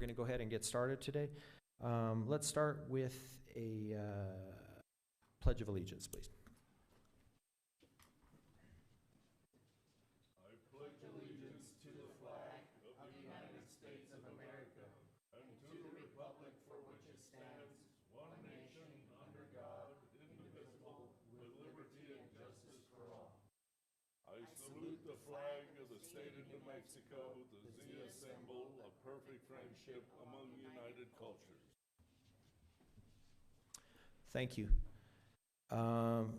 to go ahead and get started today. Um, Let's start with a uh, pledge of allegiance, please. I salute the flag of the state of New Mexico, the Zia symbol of perfect friendship among united cultures. Thank you. Um,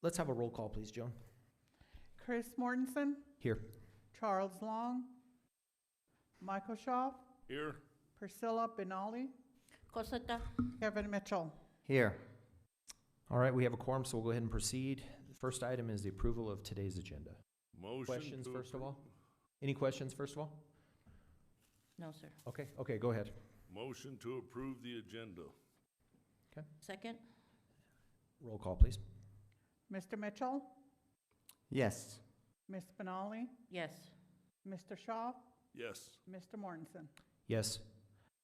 Let's have a roll call, please, Joan. Chris Mortensen, Here. Charles Long, Michael Shaw, Here. Priscilla Benali, Cosetta, Kevin Mitchell. Here. All right, we have a quorum, so we'll go ahead and proceed. The First item is the approval of today's agenda. Motion. Questions, to first of appro- all? Any questions, first of all? no, sir. Okay, okay, go ahead. Motion to approve the agenda. Second, Roll call, please. Mr. Mitchell, Yes. Miss Benali, yes. Mr. Shaw, Yes. Mr. Mortensen. Yes.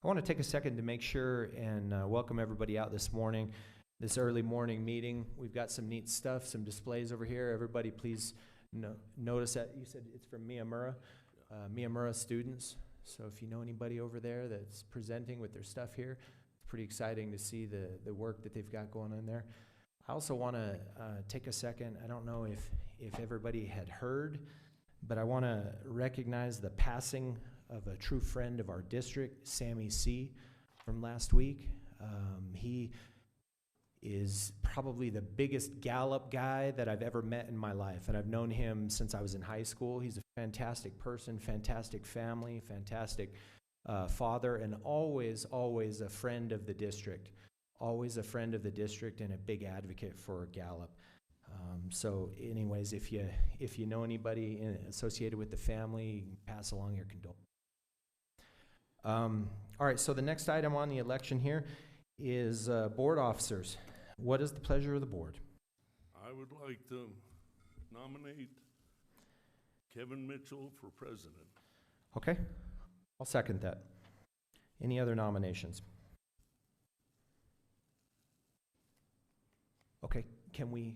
I want to take a second to make sure and uh, welcome everybody out this morning, this early morning meeting. We've got some neat stuff, some displays over here. Everybody, please no- notice that. You said it's from Miyamura, uh, Miyamura students. So if you know anybody over there that's presenting with their stuff here, it's pretty exciting to see the, the work that they've got going on there. I also want to uh, take a second. I don't know if, if everybody had heard, but I want to recognize the passing of a true friend of our district, Sammy C, from last week. Um, he is probably the biggest Gallup guy that I've ever met in my life, and I've known him since I was in high school. He's a fantastic person, fantastic family, fantastic uh, father, and always, always a friend of the district. Always a friend of the district and a big advocate for Gallup. Um, so, anyways, if you if you know anybody in, associated with the family, you can pass along your condolences. Um, all right, so the next item on the election here is uh, board officers. What is the pleasure of the board? I would like to nominate Kevin Mitchell for president. Okay, I'll second that. Any other nominations? Okay, can we,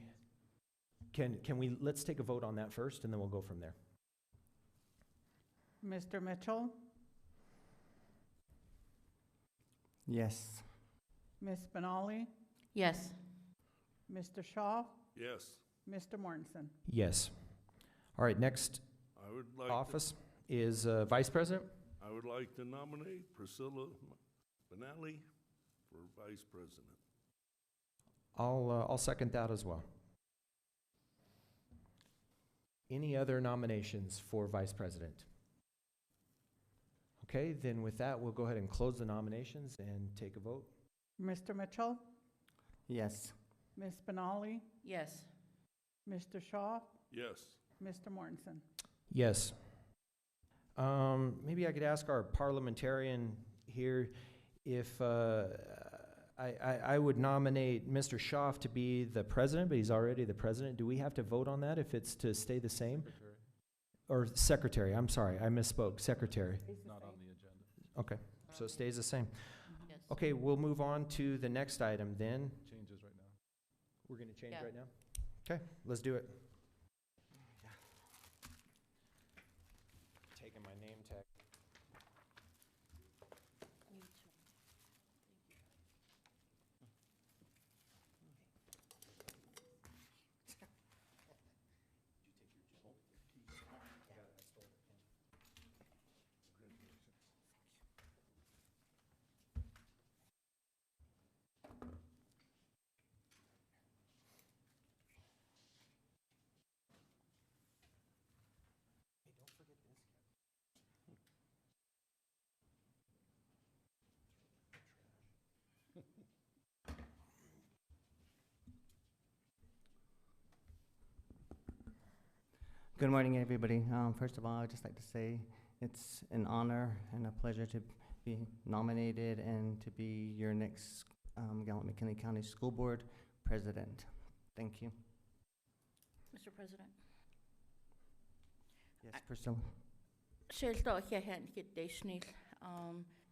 can, can we, let's take a vote on that first and then we'll go from there. Mr. Mitchell, Yes. Miss Benali, Yes, Mr. Shaw, Yes, Mr. Mortensen. Yes. All right, next I would like. to- office is uh, vice president. I would like to nominate Priscilla Benali for vice president. I'll, uh, I'll second that as well. Any other nominations for vice president? Okay, then with that, we'll go ahead and close the nominations and take a vote. Mr. Mitchell, Yes. Miss Benali, yes. Mr. Shaw, Yes. Mr. Mortensen. Yes. Um, maybe I could ask our parliamentarian here if, uh, I, I, I would nominate Mr. Schaaf to be the president, but he's already the president. Do we have to vote on that if it's to stay the same? Or secretary, I'm sorry, I misspoke, secretary. Not on the. Okay, so it stays the same. Uh, Yes. Okay, we'll move on to the next item then. Changes right now. We're gonna change Yeah. right now? Okay, let's do it. Taking my name tag. Good morning, everybody. Um, first of all, I'd just like to say it's an honor and a pleasure to be nominated and to be your next um, Gallup McKinley County School Board President. Thank you. Mr. President, Yes, I- Priscilla. Sjálvsdag hjá henn get deisnil. Um,